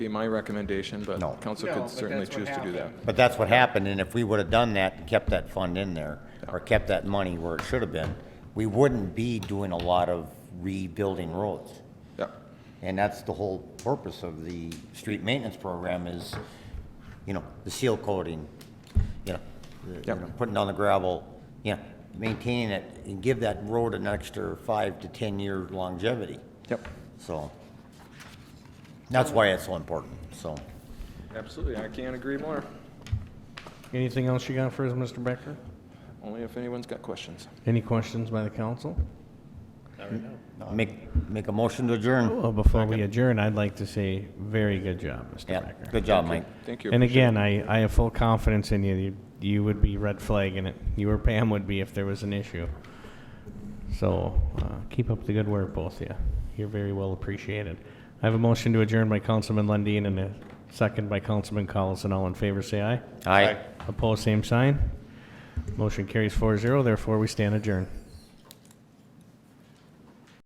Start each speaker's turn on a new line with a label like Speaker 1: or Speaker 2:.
Speaker 1: be my recommendation, but
Speaker 2: No.
Speaker 1: council
Speaker 3: No,
Speaker 1: could
Speaker 3: but
Speaker 1: certainly
Speaker 3: that's what
Speaker 1: choose to do that.
Speaker 3: happened.
Speaker 2: But that's what happened, and if we would have done that and kept that fund in there, or kept that money where it should have been, we wouldn't be doing a lot of rebuilding roads.
Speaker 1: Yeah,
Speaker 2: And that's the whole purpose of the street maintenance program is, you know, the seal coating, you know, the- you
Speaker 1: Yep.
Speaker 2: know, putting down the gravel, you know, maintaining it, and give that road an extra five to 10-year longevity.
Speaker 1: yep,
Speaker 2: So, that's why it's so important, so.
Speaker 1: absolutely, I can't agree more,
Speaker 4: Anything else you got for us, Mr. Becker?
Speaker 1: only if anyone's got questions.
Speaker 4: Any questions by the council?
Speaker 2: Make, make a motion to adjourn.
Speaker 4: Well, before we adjourn, I'd like to say, very good job, Mr.
Speaker 2: Yeah,
Speaker 4: Becker.
Speaker 2: good job, Mike.
Speaker 1: Thank you.
Speaker 4: And again, I, I have full confidence in you. you. You would be red flagging it. You or Pam would be if there was an issue. So uh, keep up the good work, both of you. You're very well appreciated. I have a motion to adjourn by Councilman Lundin and a second by Councilman Collison. All in favor, say aye.
Speaker 2: Aye.
Speaker 4: Opposed, same sign. Motion carries 4-0. Therefore, we stand adjourned.